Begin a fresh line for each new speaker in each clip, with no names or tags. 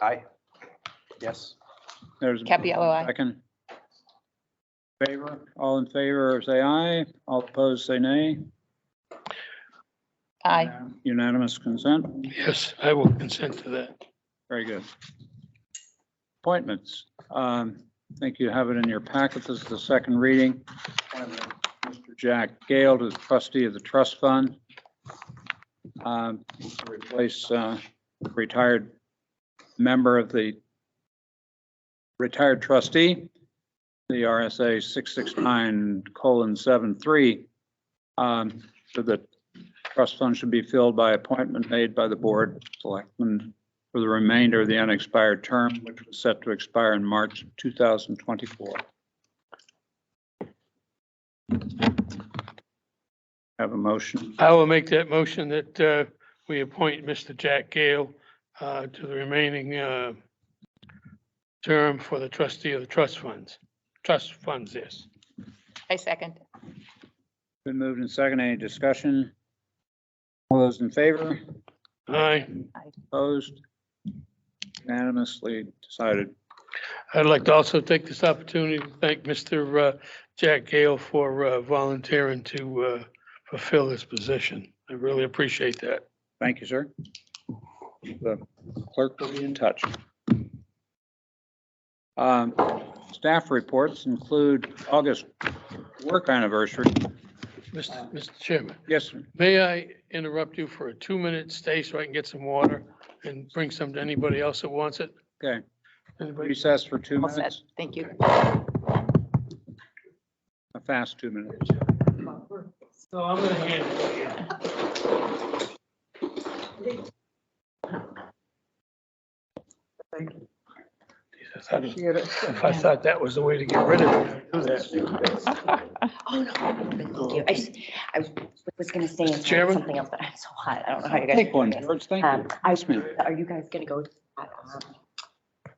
Aye. Yes.
There's. a
Capello, aye.
Second. Favor, all in favor, say aye. All opposed, say nay.
Aye.
Unanimous consent.
Yes, I will consent to that.
Very good. Appointments. Um, I think you have it in your packet. This is the second reading. Appointment of Mr. Jack Gale to the trustee of the trust fund. Um, to Replace uh, retired member of the retired trustee, the RSA 669 colon 73. um, So the trust fund should be filled by appointment made by the board of selectmen for the remainder of the unexpired term, which was set to expire in March 2024. Have a motion.
I will make that motion that uh, we appoint Mr. Jack Gale uh, to the remaining uh, term for the trustee of the trust funds, trust funds, yes.
I second.
Been moved and second. Any discussion? All those in favor?
Aye.
Opposed? Unanimously decided.
I'd like to also take this opportunity to thank Mr. uh, Jack Gale for uh, volunteering to uh, fulfill this position. I really appreciate that.
Thank you, sir. The clerk will be in touch. Um, Staff reports include August work anniversary.
Mr. Mr. Chairman,
Yes, sir.
may I interrupt you for a two-minute stay so I can get some water and bring some to anybody else that wants it?
Okay.
Anybody?
Recess for two
All set.
minutes,
Thank you.
a fast two minutes.
So I'm gonna hand it to you. Jesus, I didn't- If I thought that was the way to get rid of it, I'd do that.
Oh, no, thank you. I just, I was gonna say it's like
Chairman?
something else, but I'm so hot. I don't know how you guys.
Take one,
do this.
George, thank you.
Um, I,
Yes, ma'am.
are you guys gonna go to that, um,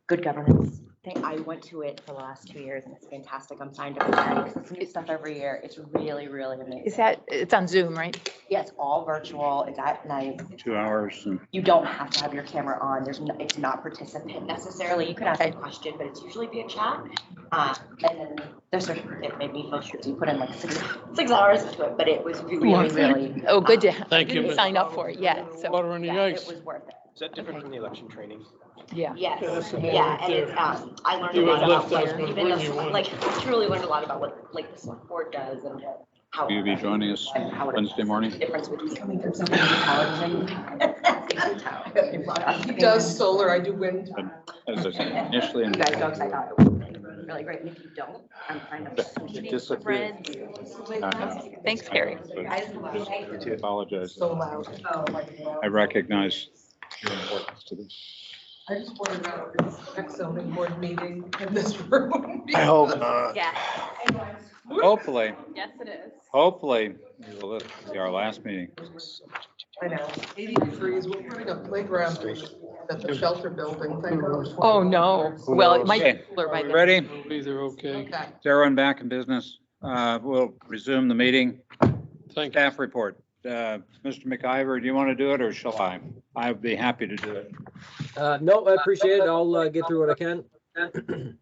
good governance thing? I went to it for the last two years and it's fantastic. I'm signed up for that because it's new stuff every year. It's really, really amazing.
Is that, it's on Zoom, right?
Yeah, it's all virtual. It's at night.
Two hours and
You don't have to have your camera on. There's, no- it's not participant necessarily. You could ask a question, but it's usually via chat. Uh, and then there's, a- it made me feel guilty. Put in like six, six hours into it, but it was really,
Wanted that.
really.
Oh, good to.
Thank you,
didn't
Ms.
Sign up for it yet, so,
Water on the
Yeah, it
ice.
was worth it.
Is that different from the election training?
yeah.
Yeah, that's
Yes,
the
yeah,
one
and it's,
right
um, I learned
You
a
would
lot about,
lift us
like,
with
even the,
what you want.
select- like, I truly learned a lot about what, like, the select board does and how.
Will you be joining us
and how it
Wednesday
affects
morning?
the Difference between coming from something to television.
He does solar, I do wind.
As I said initially,
You
and
guys don't, 'cause I thought it was really great, and if you don't, I'm kind of.
it disappeared.
Thanks, Carrie.
I apologize.
So loud.
I recognize your importance to this.
I just wanted to know if it's next zoning board meeting in this room.
not.
Yeah.
Hopefully,
Yes, it is.
hopefully, we will- this will be our last meeting.
I know, eighty degrees, we're putting a playground at the shelter building. Thank God.
Oh, no. Well, it might be
Okay.
cooler by
We
then.
Ready?
It'll be there, okay.
Okay.
Is everyone back in business? Uh, We'll resume the meeting.
Thank you.
Staff report. Uh, Mr. McIver, do you want to do it or shall I? I'd be happy to do it.
Uh, no, I appreciate it. I'll uh, get through what I can.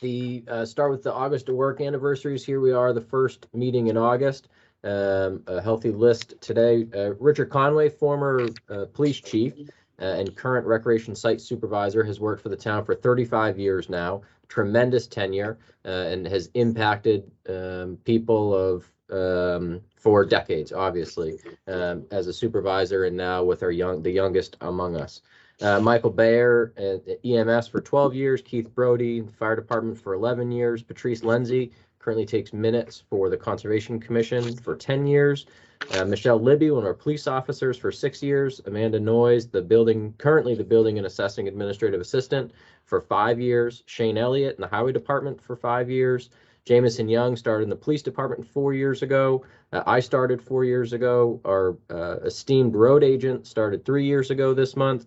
The, uh, start with the August to work anniversaries. Here we are, the first meeting in August. Um, a healthy list today. Uh, Richard Conway, former, uh, police chief uh, and current recreation site supervisor, has worked for the town for thirty-five years now. Tremendous tenure, uh, and has impacted, um, people of, um, for decades, obviously, um, as a supervisor and now with our young, the youngest among us. Uh, Michael Bayer at EMS for 12 years, Keith Brody, Fire Department for 11 years, Patrice Lenzi currently takes minutes for the Conservation Commission for 10 years, uh, Michelle Libby, one of our police officers for six years, Amanda Noyes, the building, currently the Building and Assessing Administrative Assistant for five years, Shane Elliott in the Highway Department for five years, Jamison Young started in the Police Department four years ago, uh, I started four years ago, our uh, esteemed road agent started three years ago this month,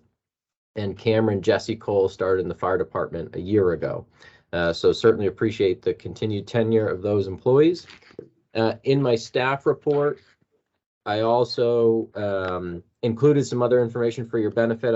and Cameron Jesse Cole started in the fire department a year ago. Uh, so certainly appreciate the continued tenure of those employees. Uh, in my staff report, I also um, included some other information for your benefit.